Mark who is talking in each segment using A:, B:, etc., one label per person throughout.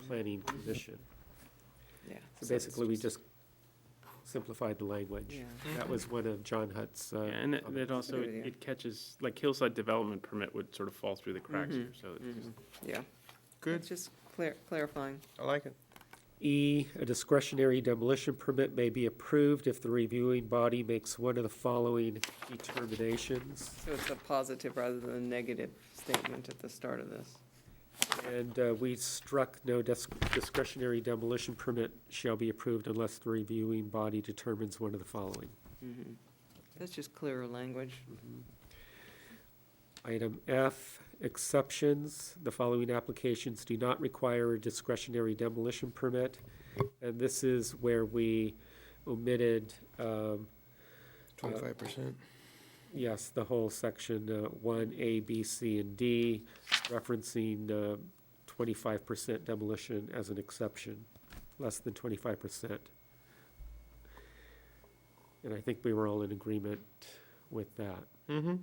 A: planning commission.
B: yeah.
A: So basically, we just simplified the language.
B: Yeah.
A: That was one of John Hutt's,
C: Oh, Yeah,
A: uh,
C: And that- that
A: comments.
C: also,
B: Good idea.
C: it it catches, like Hillside Development Permit would sort of fall through the cracks here,
B: Mhm,
C: so it's just
B: Yeah.
D: Good,
B: It's just clar- clarifying.
D: I like it.
A: E, a discretionary demolition permit may be approved if the reviewing body makes one of the following determinations.
B: So it's a positive rather than a negative statement at the start of this.
A: And uh, we struck no dis- discretionary demolition permit shall be approved unless the reviewing body determines one of the following.
B: Mhm. That's just clearer language.
A: Item F, exceptions. The following applications do not require a discretionary demolition permit. And this is where we omitted, um,
D: Twenty-five percent.
A: yes, the whole section uh, one, A, B, C, and D, referencing uh, twenty-five percent demolition as an exception, less than twenty-five percent. And I think we were all in agreement with that.
D: Mm-hmm.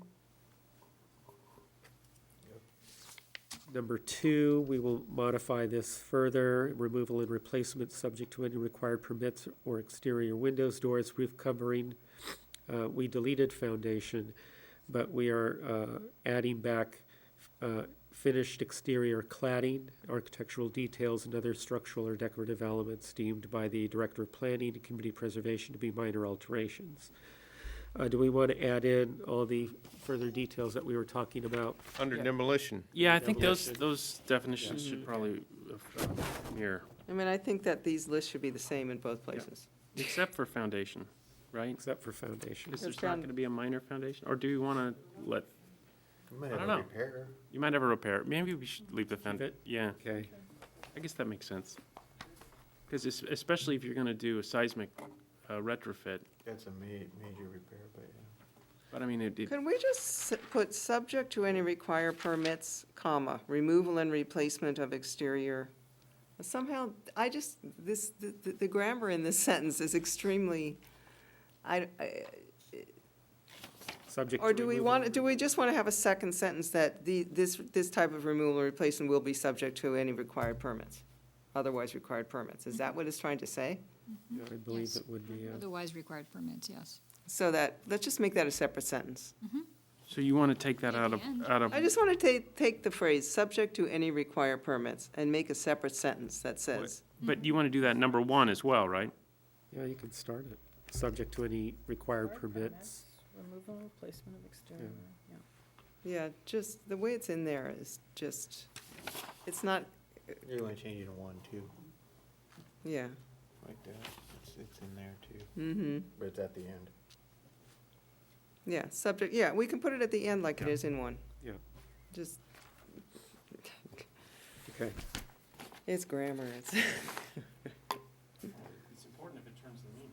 A: Number two, we will modify this further, removal and replacement subject to any required permits or exterior windows, doors, roof covering. Uh, we deleted foundation, but we are, uh, adding back, uh, finished exterior cladding, architectural details and other structural or decorative elements deemed by the Director of Planning and Community Preservation to be minor alterations. Uh, do we want to add in all the further details that we were talking about?
D: Under
B: Yeah.
D: demolition.
C: Yeah, I think those,
A: Demolition.
C: those definitions
B: Yeah.
C: should probably uh, mirror,
B: I mean, I think that these lists should be the same in both places.
C: except for foundation, right?
A: Except for foundation.
B: Because
C: Is there's not
B: found-
C: going to be a minor foundation, or do you want to let,
E: I
C: have a know. you might have a repair, maybe we should leave the found,
A: it?
C: yeah,
A: Okay.
C: I guess that makes sense. Because especially if you're going to do a seismic uh, retrofit,
E: That's a ma- major repair, but yeah.
C: but I mean, it, it-
B: Can we just s- put subject to any require permits, comma, removal and replacement of exterior? Somehow, I just, this, the, the- the grammar in this sentence is extremely, I, I-
A: Subject to
B: or do we
A: removal.
B: want, do we just want to have a second sentence that the, this, this type of removal or replacement will be subject to any required permits? Otherwise required permits, is
A: Mm-hmm.
B: that what it's trying to say?
A: I believe
F: Yes.
A: it would be, uh,
F: Otherwise required permits, yes.
B: So that, let's just make that a separate sentence.
C: so you want to take that
F: At
C: out
F: the
C: of,
F: end.
C: out of,
B: I just want to take, take the phrase, subject to any required permits, and make a separate sentence that says,
C: but you want to do that number one as well, right?
A: yeah, you can start it, subject to any required permits.
G: Removal, replacement of exterior, yeah.
B: yeah, just, the way it's in there is just, it's not,
E: You want to change it to one, too,
B: yeah,
E: like that. It's, it's in there too,
B: mm-hmm,
E: but it's at the end.
B: yeah, subject, yeah, we can put it at the end like it is in one.
A: Yeah.
B: Just,
A: Okay,
B: it's grammar, it's,
C: It's important if it turns the meaning.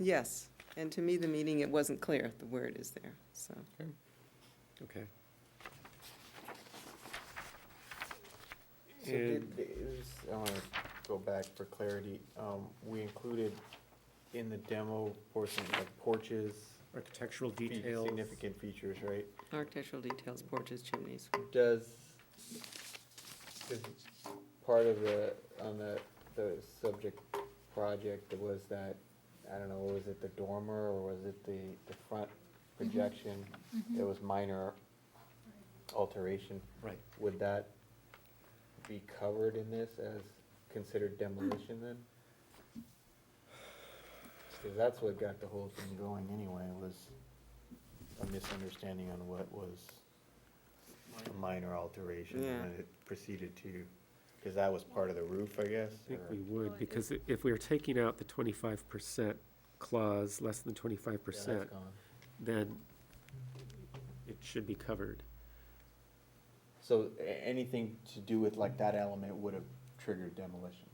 B: yes, and to me, the meaning, it wasn't clear, the word is there, so.
A: okay.
E: So
A: And-
E: did, is- I want to go back for clarity. Um, we included in the demo portion, like porches,
A: Architectural
E: fe-
A: details.
E: significant features, right?
B: Architectural details, porches, chimneys.
E: Does, does part of the, on the, the subject project, was that, I don't know, was it the dormer or was it the, the front projection? There was minor alteration.
A: Right.
E: Would that be covered in this as considered demolition then? Because that's what got the whole thing going anyway, was a misunderstanding on what was a minor alteration
B: Yeah.
E: and then it proceeded to, because that was part of the roof, I guess?
A: I think
E: or-
A: we would, because i- if we are taking out the twenty-five percent clause, less than twenty-five
E: Yeah, that's
A: percent,
E: gone.
A: then it should be covered.
E: So a- anything to do with like that element would have triggered demolition?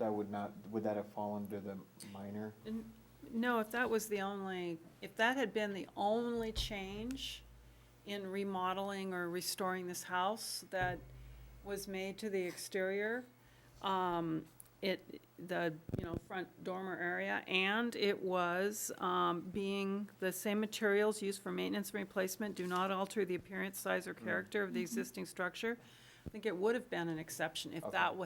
E: That would not, would that have fallen to the minor?
G: And, no, if that was the only, if that had been the only change in remodeling or restoring this house that was made to the exterior, um, it, the, you know, front dormer area, and it was, um, being the same Mm-hmm. materials used for maintenance and replacement do not alter the appearance, size, or character of the existing structure, I think it would have been an exception if
E: Okay.
G: that wa-